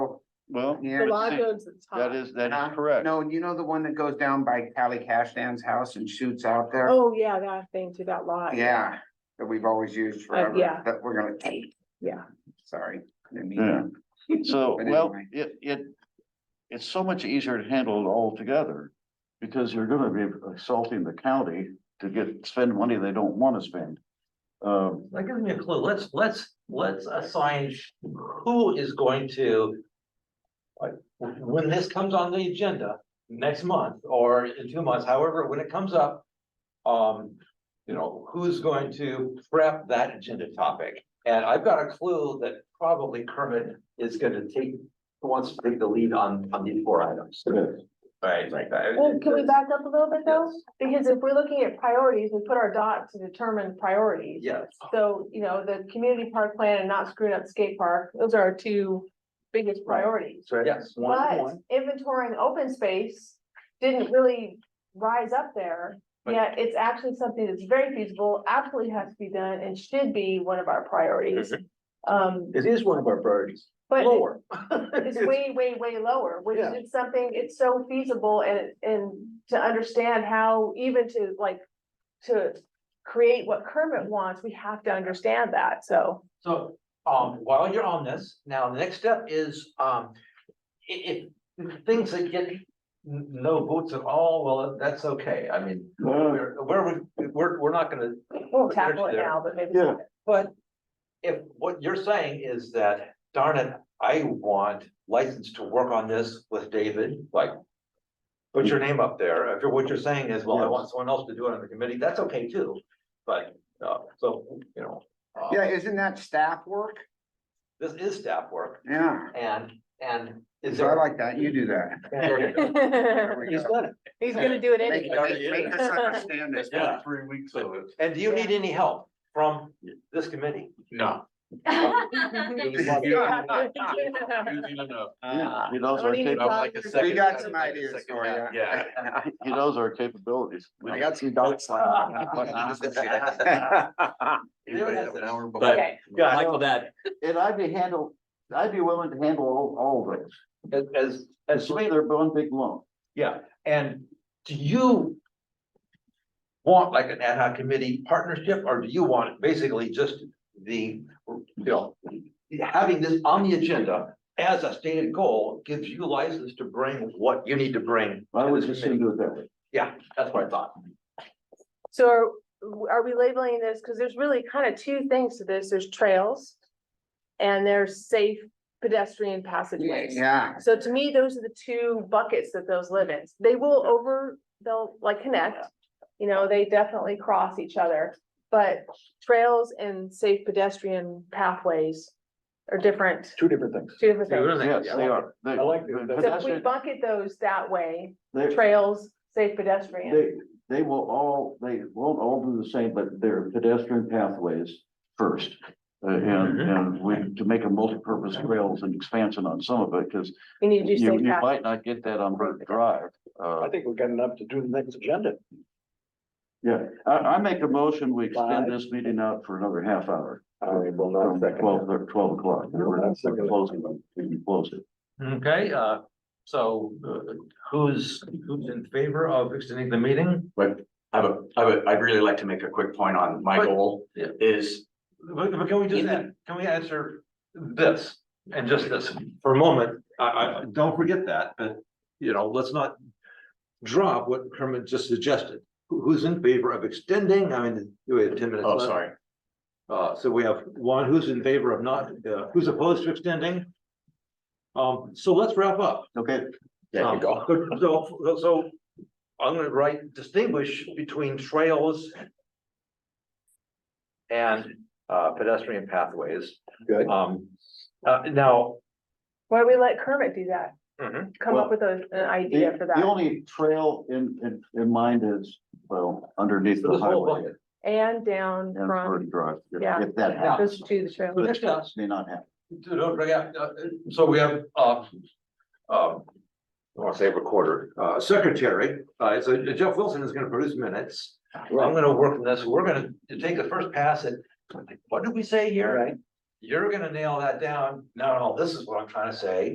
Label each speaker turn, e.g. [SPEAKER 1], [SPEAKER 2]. [SPEAKER 1] Well,
[SPEAKER 2] Yeah.
[SPEAKER 3] The law
[SPEAKER 1] see,
[SPEAKER 3] goes at the top.
[SPEAKER 1] that is, that
[SPEAKER 2] Uh,
[SPEAKER 1] is correct.
[SPEAKER 2] No, you know the one that goes down by Callie Cashdan's house and shoots out there?
[SPEAKER 3] Oh, yeah, that thing to that lot.
[SPEAKER 2] Yeah, that we've always used forever,
[SPEAKER 3] yeah.
[SPEAKER 2] that we're gonna take,
[SPEAKER 3] Yeah.
[SPEAKER 2] sorry. didn't mean
[SPEAKER 1] Yeah.
[SPEAKER 2] to.
[SPEAKER 1] So,
[SPEAKER 2] But
[SPEAKER 1] well,
[SPEAKER 2] anyway.
[SPEAKER 1] it, it, it's so much easier to handle it all together. Because you're gonna be assaulting the county to get, spend money they don't wanna spend. Um,
[SPEAKER 4] That gives me a clue. Let's, let's, let's assign sh- who is going to. Like, when when this comes on the agenda next month or in two months, however, when it comes up. Um, you know, who's going to prep that agenda topic? And I've got a clue that probably Kermit is gonna take, wants to take the lead on, on these four items. Right, like that.
[SPEAKER 3] Well, Oh, can we back up a little bit though?
[SPEAKER 4] Yes.
[SPEAKER 3] Because if we're looking at priorities, we put our dot to determine priorities.
[SPEAKER 4] Yes.
[SPEAKER 3] So, you know, the community park plan and not screwing up skate park, those are our two biggest
[SPEAKER 4] Right.
[SPEAKER 3] priorities.
[SPEAKER 4] Yes. one-
[SPEAKER 3] But
[SPEAKER 4] one.
[SPEAKER 3] inventorying open space didn't really rise up there.
[SPEAKER 4] But-
[SPEAKER 3] Yet it's actually something that's very feasible, absolutely has to be done and should be one of our priorities. Um,
[SPEAKER 4] It is one of our priorities.
[SPEAKER 3] but
[SPEAKER 4] Lower.
[SPEAKER 3] it's way, way, way lower, which
[SPEAKER 4] Yeah.
[SPEAKER 3] is something, it's so feasible and, and to understand how even to like. To create what Kermit wants, we have to understand that, so.
[SPEAKER 4] So, um, while you're on this, now the next step is, um, i- if things that get n- no votes at all, well, that's okay. I mean,
[SPEAKER 1] uh,
[SPEAKER 4] we're, we're, we're, we're not gonna,
[SPEAKER 3] We'll tackle it
[SPEAKER 4] There's there.
[SPEAKER 3] now, but maybe.
[SPEAKER 1] Yeah.
[SPEAKER 4] but if what you're saying is that, darn it, I want license to work on this with David, like, put your name up there. If you're, what you're saying is, well, I want someone else to do it on the committee, that's okay too. But, uh, so, you know, uh,
[SPEAKER 2] Yeah, isn't that staff work?
[SPEAKER 4] this is staff work
[SPEAKER 2] Yeah,
[SPEAKER 4] and, and is
[SPEAKER 2] so I
[SPEAKER 4] there?
[SPEAKER 2] like that, you do that. There we
[SPEAKER 4] He's
[SPEAKER 2] go.
[SPEAKER 4] done it.
[SPEAKER 3] He's gonna do it
[SPEAKER 2] Make
[SPEAKER 3] anyway.
[SPEAKER 2] make- make us understand this.
[SPEAKER 4] Yeah.
[SPEAKER 1] Three weeks
[SPEAKER 4] of And do you need any help from this committee?
[SPEAKER 5] No.
[SPEAKER 1] Yeah, he knows
[SPEAKER 3] I don't
[SPEAKER 1] our,
[SPEAKER 3] even
[SPEAKER 1] cap-
[SPEAKER 5] I'm Uh, like a
[SPEAKER 3] talk-
[SPEAKER 5] second-
[SPEAKER 2] We got some
[SPEAKER 5] I'm like a
[SPEAKER 2] ideas
[SPEAKER 5] second
[SPEAKER 2] for
[SPEAKER 5] guy.
[SPEAKER 2] you.
[SPEAKER 5] Yeah.
[SPEAKER 1] he knows our capabilities.
[SPEAKER 2] I got some dots.
[SPEAKER 4] Everybody has an hour
[SPEAKER 5] But-
[SPEAKER 3] Okay,
[SPEAKER 5] Michael, that,
[SPEAKER 1] And I'd be handle, I'd be willing to handle all, all of those.
[SPEAKER 4] As, as,
[SPEAKER 1] That's why they're one big lump.
[SPEAKER 4] yeah, and do you want like an ad hoc committee partnership, or do you want basically just the, you know, having this on the agenda as a stated goal gives you license to bring what you need to bring?
[SPEAKER 1] I
[SPEAKER 4] to
[SPEAKER 1] would
[SPEAKER 4] this
[SPEAKER 1] just
[SPEAKER 4] committee?
[SPEAKER 1] do it that way.
[SPEAKER 4] Yeah, that's what I thought.
[SPEAKER 3] so are, are we labeling this, because there's really kind of two things to this, there's trails. And there's safe pedestrian passageways.
[SPEAKER 2] Yeah,
[SPEAKER 3] So to me, those are the two buckets that those live in. They will over, they'll like connect. You know, they definitely cross each other, but trails and safe pedestrian pathways are different,
[SPEAKER 4] Two different things.
[SPEAKER 3] two different things.
[SPEAKER 1] Yes, they are. They-
[SPEAKER 4] I like
[SPEAKER 1] the
[SPEAKER 4] that.
[SPEAKER 3] So if we
[SPEAKER 1] pedestrian-
[SPEAKER 3] bucket those that way,
[SPEAKER 1] they-
[SPEAKER 3] trails, safe pedestrian,
[SPEAKER 1] They, they will all, they won't all do the same, but they're pedestrian pathways first. Uh, and,
[SPEAKER 4] Mm-hmm.
[SPEAKER 1] and we, to make a multi-purpose trails and expansion on some of it, because
[SPEAKER 3] we need to do
[SPEAKER 1] you,
[SPEAKER 3] safe
[SPEAKER 1] you
[SPEAKER 3] path.
[SPEAKER 1] might not get that on Burke Drive. Uh,
[SPEAKER 4] think we've got enough to do the next agenda.
[SPEAKER 1] yeah, I, I make a motion, we extend this meeting out for another half hour.
[SPEAKER 4] I will
[SPEAKER 1] From twelve, thir- twelve o'clock. We're closing, we can close it.
[SPEAKER 4] Okay, uh, so uh, who's, who's in favor of extending the meeting?
[SPEAKER 5] I have a, I would, I'd really like to make a quick point on my
[SPEAKER 4] But-
[SPEAKER 5] goal
[SPEAKER 4] Yeah.
[SPEAKER 5] is,
[SPEAKER 4] But, but can we just,
[SPEAKER 5] Yeah.
[SPEAKER 4] can we answer this and just this for a moment? I, I, don't forget that, but, you know, let's not drop what Kermit just suggested. Who- Who's in favor of extending? I mean, we have ten minutes
[SPEAKER 5] oh,
[SPEAKER 4] left.
[SPEAKER 5] sorry,
[SPEAKER 4] Uh, so we have one who's in favor of not, uh, who's opposed to extending. Um, so let's wrap up.
[SPEAKER 1] Okay,
[SPEAKER 5] there
[SPEAKER 4] Um,
[SPEAKER 5] you go.
[SPEAKER 4] So, so- so I'm gonna write distinguish between trails and uh, pedestrian pathways.
[SPEAKER 5] Good.
[SPEAKER 4] Um, uh, now,
[SPEAKER 3] Why don't we let Kermit do that?
[SPEAKER 4] Mhm.
[SPEAKER 3] Come
[SPEAKER 1] Well,
[SPEAKER 3] up with a- an idea
[SPEAKER 1] the,
[SPEAKER 3] for
[SPEAKER 1] the
[SPEAKER 3] that.
[SPEAKER 1] only trail in, in, in mind is, well, underneath the
[SPEAKER 4] This whole
[SPEAKER 1] highway.
[SPEAKER 4] bucket.
[SPEAKER 3] And down
[SPEAKER 1] And
[SPEAKER 3] from,
[SPEAKER 1] Burke Drive, if-
[SPEAKER 3] Yeah.
[SPEAKER 1] if that
[SPEAKER 4] Yeah.
[SPEAKER 1] happens.
[SPEAKER 3] those two, the trails.
[SPEAKER 4] But next up,
[SPEAKER 1] May not happen.
[SPEAKER 4] dude, don't forget, uh, so we have, uh, um, I want to say recorder, uh, secretary, uh, so Jeff Wilson is gonna produce minutes. I'm gonna work on this, we're gonna take the first pass at, what did we say here? You're gonna nail that down, no, no, this is what I'm trying to say,